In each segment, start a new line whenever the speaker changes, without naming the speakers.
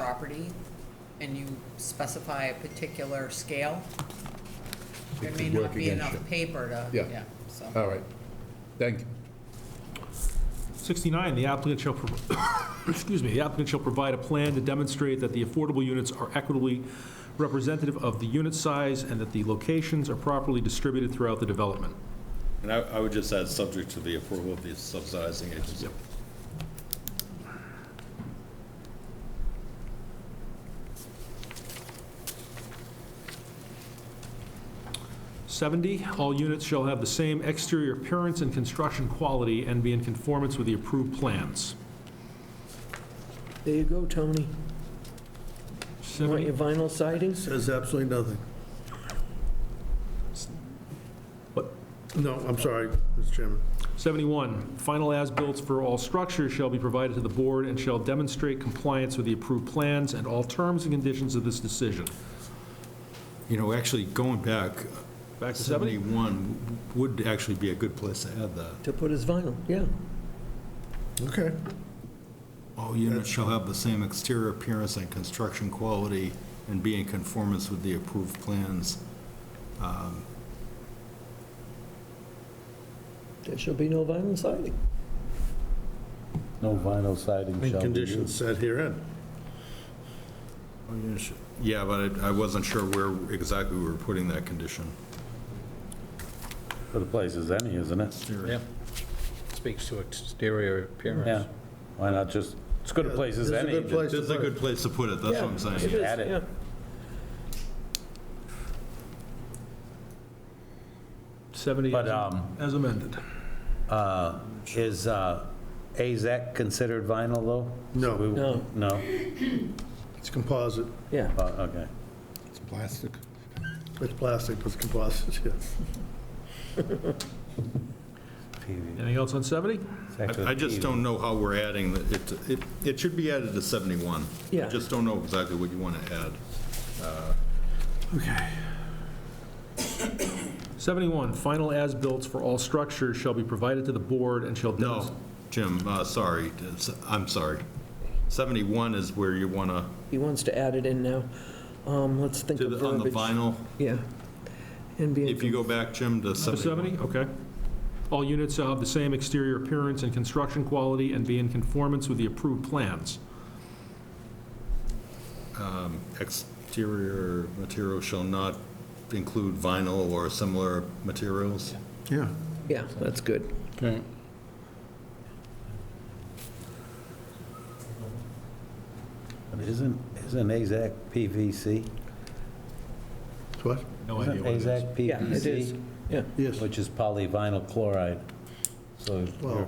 property and you specify a particular scale, there
It
may
could work
not be
against
enough paper to,
Yeah.
yeah, so.
All right. Thank you.
69, the applicant shall, prov- excuse me, the applicant shall provide a plan to demonstrate that the affordable units are equitably representative of the unit size and that the locations are properly distributed throughout the development.
And I, I would just add, subject to the approval of the subsidizing agency.
Yep. Seventy, all units shall have the same exterior appearance and construction quality and be in conformance with the approved plans.
There you go, Tony. You Want
Seventy,
your vinyl sidings?
Says absolutely nothing.
what?
No, I'm sorry, Mr. Chairman.
71, final as-built for all structures shall be provided to the board and shall demonstrate compliance with the approved plans and all terms and conditions of this decision.
You know, actually, going back,
Back to 70?
71 would actually be a good place to add that.
To put his vinyl, yeah.
Okay.
All units shall have the same exterior appearance and construction quality and be in conformance with the approved plans.
There shall be no vinyl siding.
No vinyl siding
And
shall be
conditions
used.
set herein. Oh,
All units sh- Yeah, but I I wasn't sure where exactly we were putting that condition.
For the place is any, isn't it?
Yeah. Speaks to exterior appearance.
Yeah. Why not just, it's good a place as
It's a
any.
good place
This is
to
a
put it.
good place to put it, that's what I'm
Yeah,
saying.
it is,
Add it.
yeah.
But
70
um,
as amended.
is uh, AZEC considered vinyl, though?
No.
We-
No.
No?
It's composite.
Yeah.
Oh, Okay.
It's plastic.
It's plastic, but it's composite, yes.
PV.
Anything else on 70?
It's actually
I- I just
PV.
don't know how we're adding, the- it, it- it should be added to 71.
Yeah.
I just don't know exactly what you want to add.
71, final as-built for all structures shall be provided to the board and shall
No,
demonstrate.
Jim, uh, sorry, it's- I'm sorry. 71 is where you want to,
He wants to add it in now. Um, let's think of
on the
verbiage.
vinyl,
Yeah. And be,
if you go back, Jim, to 71.
70, okay. All units shall have the same exterior appearance and construction quality and be in conformance with the approved plans.
Exterior material shall not include vinyl or similar materials.
Yeah.
yeah, that's good.
Okay.
But Isn't, isn't AZAC PVC?
What?
No
Isn't
idea what it is.
AZAC
Yeah, it is.
PVC?
Yeah.
Yes.
Which is polyvinyl chloride. So you're,
Well-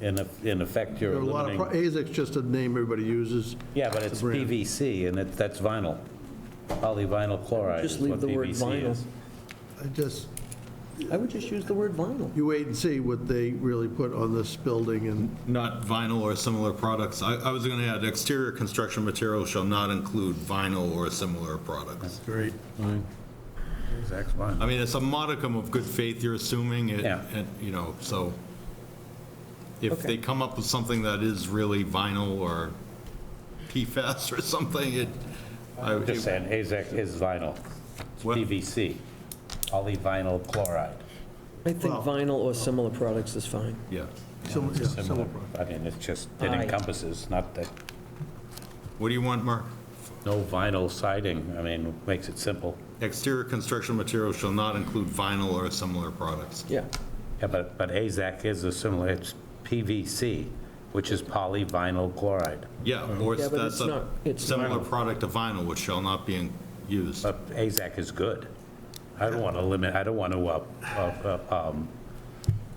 in eff- in effect, you're
There are a lot of, pro-
eliminating.
AZAC's just a name everybody uses.
Yeah, but
It's a
it's
brand.
PVC and it, that's vinyl. Polyvinyl chloride is
Just leave
what
the word
PVC
vinyl.
is.
I just,
I would just use the word vinyl.
you wait and see what they really put on this building and
Not vinyl or similar products. I, I was going to add exterior construction material shall not include vinyl or similar products.
Great.
AZAC's vinyl.
I mean, it's a modicum of good faith you're assuming, it-
Yeah.
and, you know, so if they come up with something that is really vinyl or PFAS or something, it, I
I'm Just saying, AZAC is vinyl. It's
Well-
PVC, polyvinyl chloride.
I think
Well-
vinyl or similar products is fine.
yeah.
Some- yeah, some-
Similar. I mean, it's just, it
Aye.
encompasses, not that,
What do you want, Mark?
no vinyl siding, I mean, makes it simple.
Exterior construction material shall not include vinyl or similar products.
Yeah.
Yeah, but, but AZAC is a similar, it's PVC, which is polyvinyl chloride.
Yeah, or
Uh-huh. Yeah, but
that's
it's not-
a
it's
similar
vinyl.
product to vinyl, which shall not be in- used.
But AZAC is good. I don't want to limit, I don't want to, uh, uh, uh, um,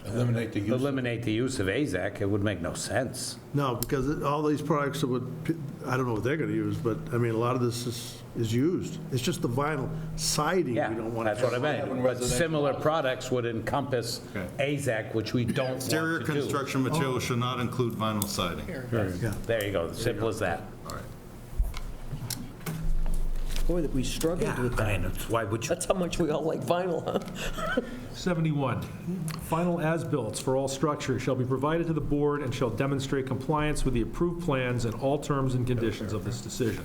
Eliminate the use.
eliminate the use of AZAC, it would make no sense.
No, because it- all these products are what, pe- I don't know what they're going to use, but I mean, a lot of this is, is used. It's just the vinyl siding we
Yeah,
don't want to.
that's what I meant. But similar products would encompass AZAC, which we don't want to do.
Exterior construction material shall not include vinyl siding.
There you go, simple as that.
Boy, that we struggled with that.
I know, it's- why would you?
That's how much we all like vinyl, huh?
71, final as-built for all structures shall be provided to the board and shall demonstrate compliance with the approved plans and all terms and conditions of this decision.